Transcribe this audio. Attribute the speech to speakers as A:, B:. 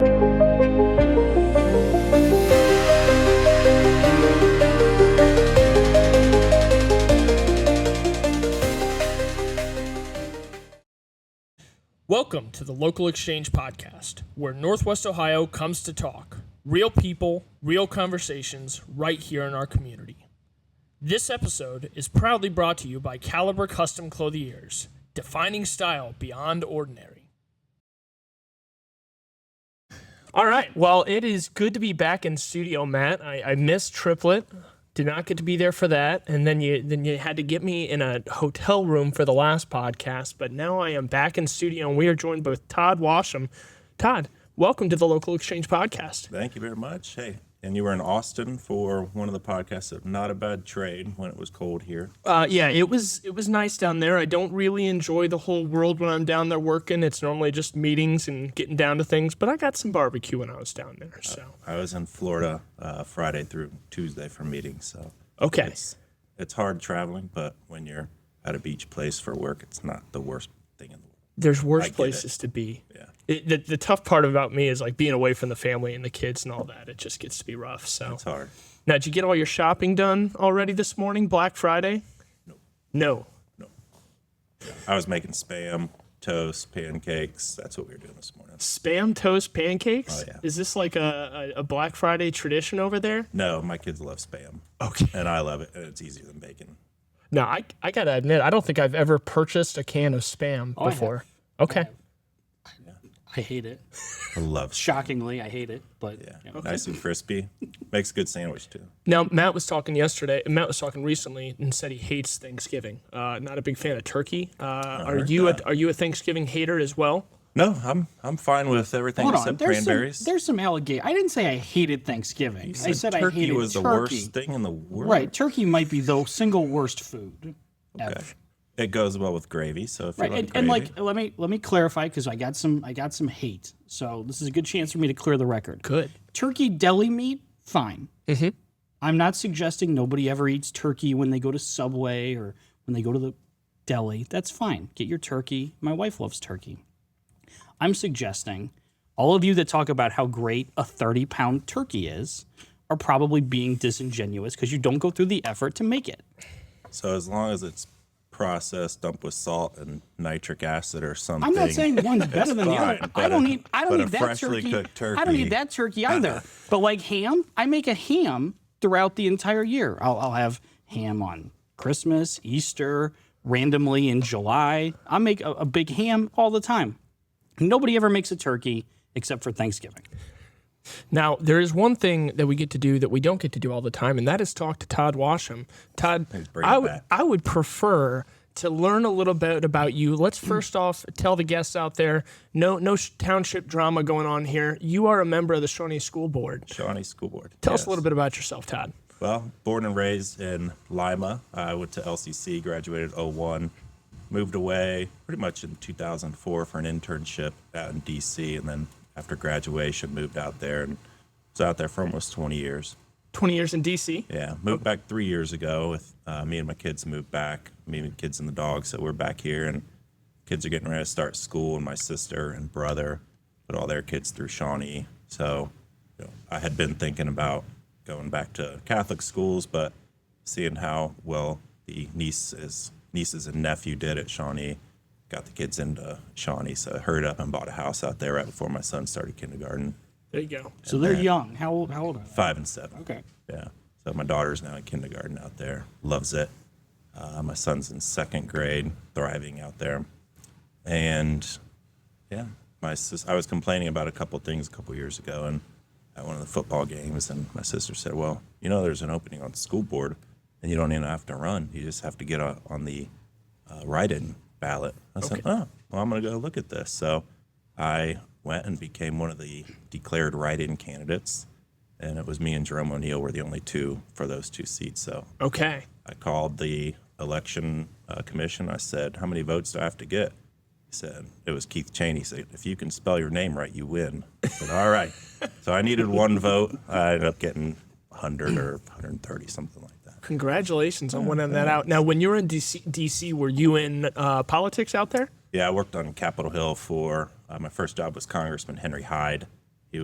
A: Welcome to the Local Exchange Podcast, where Northwest Ohio comes to talk. Real people, real conversations, right here in our community. This episode is proudly brought to you by Caliber Custom Clothiers, defining style beyond ordinary. All right, well, it is good to be back in studio, Matt. I, I missed Triplet. Did not get to be there for that, and then you then you had to get me in a hotel room for the last podcast. But now I am back in studio, and we are joined with Todd Washam. Todd, welcome to the Local Exchange Podcast.
B: Thank you very much. Hey, and you were in Austin for one of the podcasts of Not a Bad Trade when it was cold here.
A: Uh, yeah, it was it was nice down there. I don't really enjoy the whole world when I'm down there working. It's normally just meetings and getting down to things. But I got some barbecue when I was down there. So
B: I was in Florida uh, Friday through Tuesday for meetings, so
A: okay,
B: it's hard traveling. But when you're at a beach place for work, it's not the worst thing in the world.
A: there's worse
B: it.
A: places to be.
B: Yeah.
A: It, the, the tough part about me is like being away from the family and the kids and all that. It just gets to be rough. So
B: It's hard.
A: now, did you get all your shopping done already this morning, Black Friday? No.
B: I was making spam, toast, pancakes. That's what we were doing this morning.
A: Spam toast pancakes.
B: Oh, yeah.
A: Is this like a, a, a Black Friday tradition over there?
B: No, my kids love spam,
A: Okay.
B: and I love it, and it's easier than bacon.
C: No, I, I gotta admit, I don't think I've ever purchased a can of spam
A: Oh,
D: I have.
C: before. Okay.
D: I hate it.
B: I love spam.
D: Shockingly, I hate it. But
B: Yeah, nice and crispy. Makes a good sandwich too.
A: Now Matt was talking yesterday. Matt was talking recently and said he hates Thanksgiving. Uh, not a big fan of turkey. Uh, are
B: heard
A: you a, are you a Thanksgiving hater as well?
B: No, I'm I'm fine with everything
D: hold on,
B: except
D: there's
B: cranberries.
D: some there's some alligator. I didn't say I hated Thanksgiving. I said I
B: turkey
D: hated
B: was
D: turkey.
B: the worst thing in the world.
D: Right, turkey might be the single worst food. ever.
B: It goes well with gravy. So if
D: Right,
B: you like
D: and, and
B: gravy,
D: like let me let me clarify because I got some I got some hate. So this is a good chance for me to clear the record.
C: Good.
D: Turkey deli meat, fine. I'm not suggesting nobody ever eats turkey when they go to Subway or when they go to the deli. That's fine. Get your turkey. My wife loves turkey. I'm suggesting all of you that talk about how great a 30 pound turkey is are probably being disingenuous because you don't go through the effort to make it.
B: so as long as it's processed, dumped with salt and nitric acid or something.
D: I'm not saying one's better than the
B: fine,
D: other.
B: but
D: I don't
B: a-
D: eat. I don't
B: but a
D: eat that
B: freshly
D: turkey.
B: cooked
D: I don't
B: turkey- Uh-huh.
D: eat that turkey either. but like ham, I make a ham throughout the entire year. I'll, I'll have ham on Christmas, Easter, randomly in July. I make a, a big ham all the time. Nobody ever makes a turkey except for Thanksgiving.
A: Now there is one thing that we get to do that we don't get to do all the time, and that is talk to Todd Washam. Todd,
B: bring
A: I
B: it
A: would
B: back.
A: I would prefer to learn a little bit about you. Let's first off tell the guests out there, no no sh- township drama going on here. You are a member of the Shawnee School Board.
B: Shawnee School Board.
A: Tell us a little bit about yourself, Todd.
B: Well, born and raised in Lima. I went to LCC, graduated 01, moved away pretty much in 2004 for an internship out in DC, and then after graduation moved out there and was out there for almost 20 years.
A: Twenty years in D.C.
B: Yeah, moved back three years ago with uh, me and my kids moved back, me and the kids and the dog. So we're back here, and kids are getting ready to start school, and my sister and brother put all their kids through Shawnee. So you know, I had been thinking about going back to Catholic schools, but seeing how well the nieces, nieces and nephew did at Shawnee, got the kids into Shawnee. So I hurried up and bought a house out there right before my son started kindergarten,
A: There you go.
D: So they're young. How old? How old are they?
B: five and seven.
D: Okay.
B: Yeah. So my daughter's now in kindergarten out there, loves it. Uh, my son's in second grade, thriving out there. And yeah, my sis- I was complaining about a couple things a couple years ago and at one of the football games, and my sister said, "Well, you know, there's an opening on the school board, and you don't even have to run. You just have to get on, on the uh, write-in ballot." I said, "Oh, well, I'm gonna go look at this." So I went and became one of the declared write-in candidates, and it was me and Jerome O'Neill were the only two for those two seats. So
A: Okay.
B: I called the election uh, commission. I said, "How many votes do I have to get?" He said, "It was Keith Cheney." He said, "If you can spell your name right, you win." I said, "All right." So I needed one vote. I ended up getting 100 or 130, something like that.
A: Congratulations
B: Oh,
A: on winning that out. Now, when you were in DC, DC were you in uh, politics out there?
B: Yeah, I worked on Capitol Hill for uh, my first job was Congressman Henry Hyde.